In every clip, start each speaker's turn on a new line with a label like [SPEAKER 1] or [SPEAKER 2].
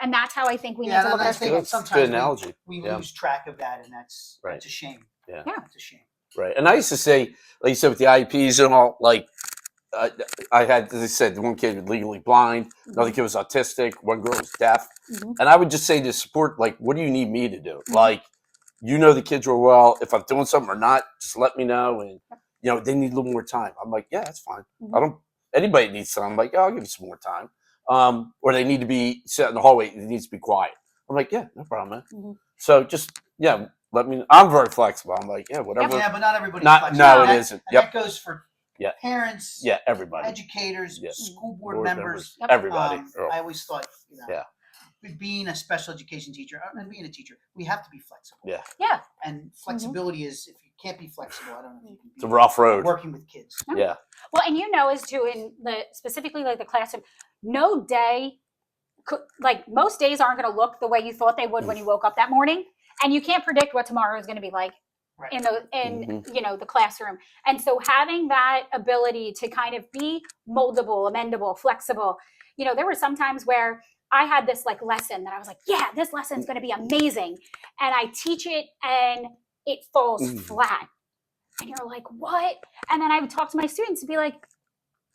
[SPEAKER 1] and that's how I think we need
[SPEAKER 2] Yeah,
[SPEAKER 1] to
[SPEAKER 2] and
[SPEAKER 1] look
[SPEAKER 2] I
[SPEAKER 1] at
[SPEAKER 2] think
[SPEAKER 1] this.
[SPEAKER 2] that
[SPEAKER 3] That's a good
[SPEAKER 2] sometimes we-
[SPEAKER 3] analogy,
[SPEAKER 2] we
[SPEAKER 3] yeah.
[SPEAKER 2] lose track of that, and that's
[SPEAKER 3] Right.
[SPEAKER 2] that's a shame.
[SPEAKER 3] Yeah.
[SPEAKER 1] Yeah.
[SPEAKER 2] it's a shame.
[SPEAKER 3] Right. And I used to say, like you said, with the IEPs and all, like uh, I had, as I said, one kid was legally blind, another kid was autistic, one girl was deaf.
[SPEAKER 1] Mhm.
[SPEAKER 3] And I would just say to support, like, what do you need me to do?
[SPEAKER 1] Mhm.
[SPEAKER 3] Like, you know the kids real well. If I'm doing something or not, just let me know. And, you know, they need a little more time. I'm like, yeah, that's fine. I
[SPEAKER 1] Mhm.
[SPEAKER 3] don't, anybody needs time. I'm like, yeah, I'll give you some more time. Um, or they need to be set in the hallway. It needs to be quiet. I'm like, yeah, no problem, man.
[SPEAKER 1] Mhm.
[SPEAKER 3] So just, yeah, let me, I'm very flexible. I'm like, yeah, whatever.
[SPEAKER 2] Yeah, but not everybody.
[SPEAKER 3] Not, no, it
[SPEAKER 2] that,
[SPEAKER 3] isn't.
[SPEAKER 2] And
[SPEAKER 3] Yep.
[SPEAKER 2] that goes for
[SPEAKER 3] Yeah.
[SPEAKER 2] parents,
[SPEAKER 3] Yeah, everybody.
[SPEAKER 2] educators,
[SPEAKER 3] Yeah.
[SPEAKER 2] school board,
[SPEAKER 3] Board
[SPEAKER 2] members.
[SPEAKER 1] Yep.
[SPEAKER 3] Everybody.
[SPEAKER 2] Um,
[SPEAKER 3] Oh,
[SPEAKER 2] I always thought, you know,
[SPEAKER 3] Yeah.
[SPEAKER 2] be- being a special education teacher uh, and being a teacher, we have to be flexible.
[SPEAKER 3] Yeah.
[SPEAKER 1] Yeah.
[SPEAKER 2] And flexibility is if you can't be flexible, I don't know if you can be
[SPEAKER 3] It's a rough road.
[SPEAKER 2] working with kids.
[SPEAKER 1] No.
[SPEAKER 3] Yeah.
[SPEAKER 1] Well, and you know, is too in the specifically like the classroom, no day could like most days aren't going to look the way you thought they would when you woke up that morning, and you can't predict what tomorrow is going to be like
[SPEAKER 2] Right.
[SPEAKER 1] in the in you know the classroom. And so having that ability to kind of be moldable, amendable, flexible. You know, there were some times where I had this like lesson that I was like, yeah, this lesson's going to be amazing, and I teach it and it falls
[SPEAKER 3] Mhm.
[SPEAKER 1] flat. And you're like, what? And then I would talk to my students and be like,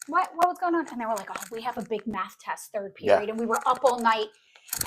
[SPEAKER 1] what, what was going on? And they were like, oh, we have a big math test third
[SPEAKER 3] Yeah.
[SPEAKER 1] period and we were up all night.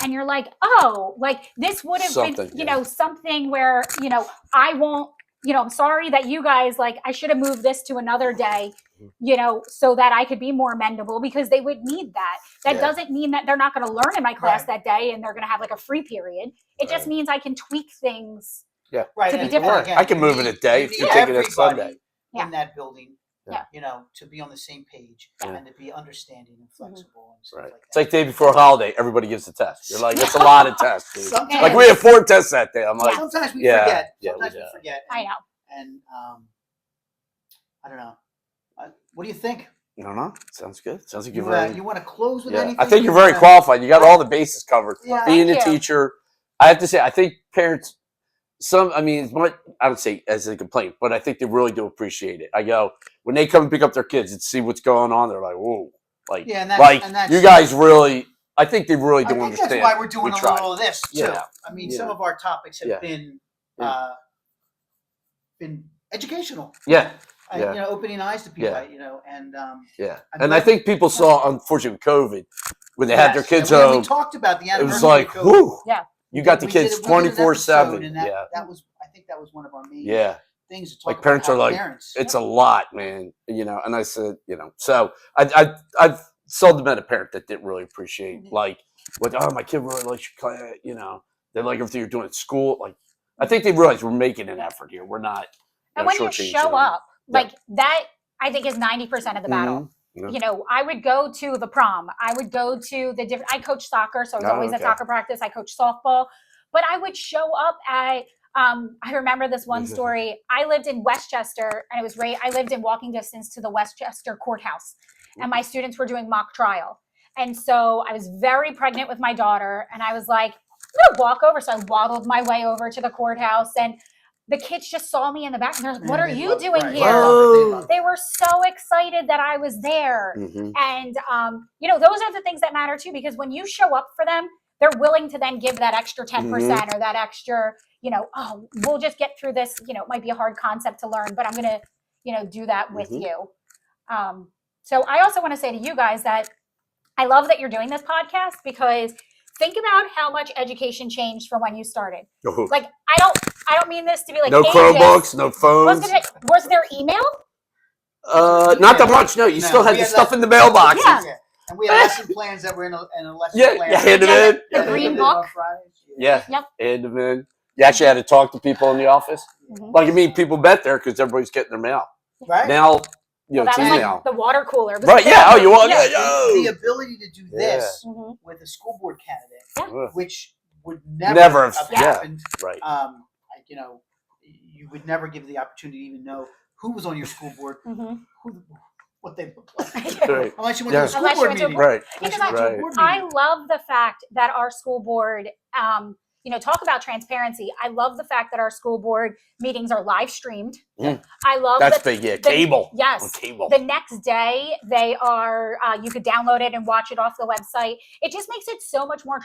[SPEAKER 1] And you're like, oh, like this would have been,
[SPEAKER 3] Something,
[SPEAKER 1] you
[SPEAKER 3] yeah.
[SPEAKER 1] know, something where, you know, I won't, you know, I'm sorry that you guys, like, I should have moved this to another day,
[SPEAKER 3] Mhm.
[SPEAKER 1] you know, so that I could be more amendable because they would need that. That
[SPEAKER 3] Yeah.
[SPEAKER 1] doesn't mean that they're not going to learn in my class that
[SPEAKER 2] Right.
[SPEAKER 1] day and they're going to have like a free period. It just
[SPEAKER 3] Right.
[SPEAKER 1] means I can tweak things.
[SPEAKER 2] Right.
[SPEAKER 1] To be
[SPEAKER 2] and- and
[SPEAKER 1] different.
[SPEAKER 2] again,
[SPEAKER 3] I can
[SPEAKER 2] you
[SPEAKER 3] move it
[SPEAKER 2] need-
[SPEAKER 3] a day if
[SPEAKER 2] need
[SPEAKER 3] you take it as Sunday.
[SPEAKER 2] everybody
[SPEAKER 1] Yeah.
[SPEAKER 2] In that building.
[SPEAKER 1] Yeah.
[SPEAKER 2] You know, to be on the same page
[SPEAKER 3] Yeah.
[SPEAKER 2] and to be understanding and
[SPEAKER 1] Mm-hmm.
[SPEAKER 2] flexible and stuff
[SPEAKER 3] Right.
[SPEAKER 2] like
[SPEAKER 3] It's
[SPEAKER 2] that.
[SPEAKER 3] like day before a holiday, everybody gives a test. You're like, that's a lot of tests, dude.
[SPEAKER 2] sometimes,
[SPEAKER 3] Like we had four tests that day. I'm like,
[SPEAKER 2] sometimes we
[SPEAKER 3] Yeah,
[SPEAKER 2] forget.
[SPEAKER 3] yeah, we
[SPEAKER 2] Sometimes
[SPEAKER 3] do.
[SPEAKER 2] we forget.
[SPEAKER 1] I know.
[SPEAKER 2] and um, I don't know. Uh, what do you think?
[SPEAKER 3] no, no, sounds good. Sounds like
[SPEAKER 2] You,
[SPEAKER 3] you're
[SPEAKER 2] uh,
[SPEAKER 3] very.
[SPEAKER 2] you want to close with
[SPEAKER 3] Yeah.
[SPEAKER 2] anything?
[SPEAKER 3] I think
[SPEAKER 2] You
[SPEAKER 3] you're very
[SPEAKER 2] wanna-
[SPEAKER 3] qualified. You got all the bases covered.
[SPEAKER 2] Yeah.
[SPEAKER 3] Being a
[SPEAKER 1] Thank you.
[SPEAKER 3] teacher, I have to say, I think parents, some, I mean, it's much, I don't say as a complaint, but I think they really do appreciate it. I go when they come and pick up their kids and see what's going on, they're like, whoa, like,
[SPEAKER 2] Yeah, and that's,
[SPEAKER 3] like
[SPEAKER 2] and that's,
[SPEAKER 3] you guys really. I think they really
[SPEAKER 2] I
[SPEAKER 3] do
[SPEAKER 2] think
[SPEAKER 3] understand.
[SPEAKER 2] that's why we're doing
[SPEAKER 3] We
[SPEAKER 2] a
[SPEAKER 3] tried.
[SPEAKER 2] little of this too.
[SPEAKER 3] Yeah.
[SPEAKER 2] I mean,
[SPEAKER 3] Yeah.
[SPEAKER 2] some of our topics have
[SPEAKER 3] Yeah.
[SPEAKER 2] been
[SPEAKER 3] Yeah.
[SPEAKER 2] uh, been educational.
[SPEAKER 3] Yeah,
[SPEAKER 2] I-
[SPEAKER 3] Yeah.
[SPEAKER 2] You know, opening eyes to people.
[SPEAKER 3] Yeah.
[SPEAKER 2] I- You know, and um,
[SPEAKER 3] yeah.
[SPEAKER 2] I'm
[SPEAKER 3] And I
[SPEAKER 2] glad-
[SPEAKER 3] think people saw, unfortunately, with COVID, when they had their
[SPEAKER 2] yes, and
[SPEAKER 3] kids
[SPEAKER 2] we- and We
[SPEAKER 3] home,
[SPEAKER 2] talked about the
[SPEAKER 3] it
[SPEAKER 2] anniversary.
[SPEAKER 3] was like,
[SPEAKER 2] of COVID.
[SPEAKER 3] whoo.
[SPEAKER 1] Yeah.
[SPEAKER 3] You got the
[SPEAKER 2] We did
[SPEAKER 3] kids
[SPEAKER 2] it- we did an
[SPEAKER 3] twenty four
[SPEAKER 2] episode,
[SPEAKER 3] seven.
[SPEAKER 2] and that-
[SPEAKER 3] Yeah,
[SPEAKER 2] That was. I think that was one of our main
[SPEAKER 3] yeah.
[SPEAKER 2] things. To talk
[SPEAKER 3] Like,
[SPEAKER 2] about
[SPEAKER 3] parents
[SPEAKER 2] how
[SPEAKER 3] are like,
[SPEAKER 2] parents.
[SPEAKER 3] It's a lot, man. You know, and I said, you know, so I I I've seldom met a parent that didn't really appreciate
[SPEAKER 2] Mhm.
[SPEAKER 3] like what oh my kid really likes your class, you know, they like everything you're doing at school. Like I think they realize we're making an effort here. We're not
[SPEAKER 1] And
[SPEAKER 3] know,
[SPEAKER 1] when you
[SPEAKER 3] shortchanging
[SPEAKER 1] show
[SPEAKER 3] them.
[SPEAKER 1] up,
[SPEAKER 3] Yeah.
[SPEAKER 1] like that, I think is ninety percent of the battle.
[SPEAKER 3] Mhm, yeah.
[SPEAKER 1] You know, I would go to the prom. I would go to the different. I coach soccer, so I was
[SPEAKER 3] Oh,
[SPEAKER 1] always at
[SPEAKER 3] okay.
[SPEAKER 1] soccer practice. I coach softball, but I would show up at. Um, I remember this one story. I lived in Westchester, and it was right. I lived in walking distance to the Westchester courthouse, and
[SPEAKER 3] Mm.
[SPEAKER 1] my students were doing mock trial. And so I was very pregnant with my daughter, and I was like, I'm gonna walk over. So I waddled my way over to the courthouse, and the kids just saw me in the back, and they're like,
[SPEAKER 2] And
[SPEAKER 1] "What are
[SPEAKER 2] they
[SPEAKER 1] you
[SPEAKER 2] love-
[SPEAKER 1] doing
[SPEAKER 2] right, they
[SPEAKER 1] here?"
[SPEAKER 2] love it, they
[SPEAKER 3] Whoa.
[SPEAKER 2] love it.
[SPEAKER 1] they were so excited that I was there.
[SPEAKER 2] Mm-hmm.
[SPEAKER 3] Mhm.
[SPEAKER 1] And, um, you know, those are the things that matter too, because when you show up for them, they're willing to then give that extra 10%
[SPEAKER 3] Mm-hmm.
[SPEAKER 1] percent or that extra, you know, oh, we'll just get through this. You know, it might be a hard concept to learn, but I'm going to, you know, do that with
[SPEAKER 3] Mhm.
[SPEAKER 1] you. Um, so I also want to say to you guys that I love that you're doing this podcast because think about how much education changed from when you started.
[SPEAKER 3] Oh,
[SPEAKER 1] Like, I don't, I don't mean this to be like
[SPEAKER 3] no
[SPEAKER 1] ageist.
[SPEAKER 3] Chromebooks, no
[SPEAKER 1] Was,
[SPEAKER 3] phones.
[SPEAKER 1] it- was there email?
[SPEAKER 3] Uh, not that much. No, you
[SPEAKER 2] No,
[SPEAKER 3] still had
[SPEAKER 2] we
[SPEAKER 3] the
[SPEAKER 2] had
[SPEAKER 3] stuff
[SPEAKER 2] less-
[SPEAKER 3] in the mailbox.
[SPEAKER 1] Yeah.
[SPEAKER 2] And we had lesson plans that were in a, in a lesson
[SPEAKER 3] Yeah,
[SPEAKER 2] plan.
[SPEAKER 3] you hand 'em
[SPEAKER 1] Yeah,
[SPEAKER 3] in.
[SPEAKER 1] the
[SPEAKER 3] hand 'em
[SPEAKER 1] green
[SPEAKER 3] in.
[SPEAKER 1] book.
[SPEAKER 2] on Fridays.
[SPEAKER 3] Yeah.
[SPEAKER 1] Yep.
[SPEAKER 3] And then you actually had to talk to people in the office.
[SPEAKER 1] Mhm.
[SPEAKER 3] Like I mean, people bet there because everybody's getting their mail.
[SPEAKER 2] Right?
[SPEAKER 3] Now, you know,
[SPEAKER 1] Well,
[SPEAKER 3] it's
[SPEAKER 1] that was
[SPEAKER 3] email.
[SPEAKER 1] like the water cooler. It was
[SPEAKER 3] Right? Yeah. Oh, you want?
[SPEAKER 1] Yeah.
[SPEAKER 3] Yeah.
[SPEAKER 2] The
[SPEAKER 3] yo.
[SPEAKER 2] ability to do
[SPEAKER 3] Yeah.
[SPEAKER 2] this
[SPEAKER 1] Mhm.
[SPEAKER 2] with a school board candidate,
[SPEAKER 3] Ugh,
[SPEAKER 2] which would never,
[SPEAKER 3] Never
[SPEAKER 2] have
[SPEAKER 3] have- yeah.
[SPEAKER 2] happened.
[SPEAKER 3] Right.
[SPEAKER 2] Um, like, you know, you would never give the opportunity to even know who was on your school board,
[SPEAKER 1] Mhm.
[SPEAKER 2] who, what they looked like.
[SPEAKER 1] Oh,
[SPEAKER 3] Right.
[SPEAKER 2] Unless you went to
[SPEAKER 3] Yeah.
[SPEAKER 2] a school
[SPEAKER 1] Unless you
[SPEAKER 2] board
[SPEAKER 1] went to a
[SPEAKER 2] meeting.
[SPEAKER 3] Right.
[SPEAKER 2] Unless you
[SPEAKER 1] Because
[SPEAKER 2] went to a
[SPEAKER 3] I-
[SPEAKER 2] board
[SPEAKER 1] I
[SPEAKER 2] meeting.
[SPEAKER 1] love the fact that our school board, um, you know, talk about transparency. I love the fact that our school board meetings are live streamed.
[SPEAKER 3] Mm.
[SPEAKER 1] I love
[SPEAKER 3] That's
[SPEAKER 1] that.
[SPEAKER 3] big. Yeah.
[SPEAKER 1] the-
[SPEAKER 3] Cable. On
[SPEAKER 1] Yes.
[SPEAKER 3] cable.
[SPEAKER 1] The next day, they are, uh, you could download it and watch it off the website. It just makes it so much more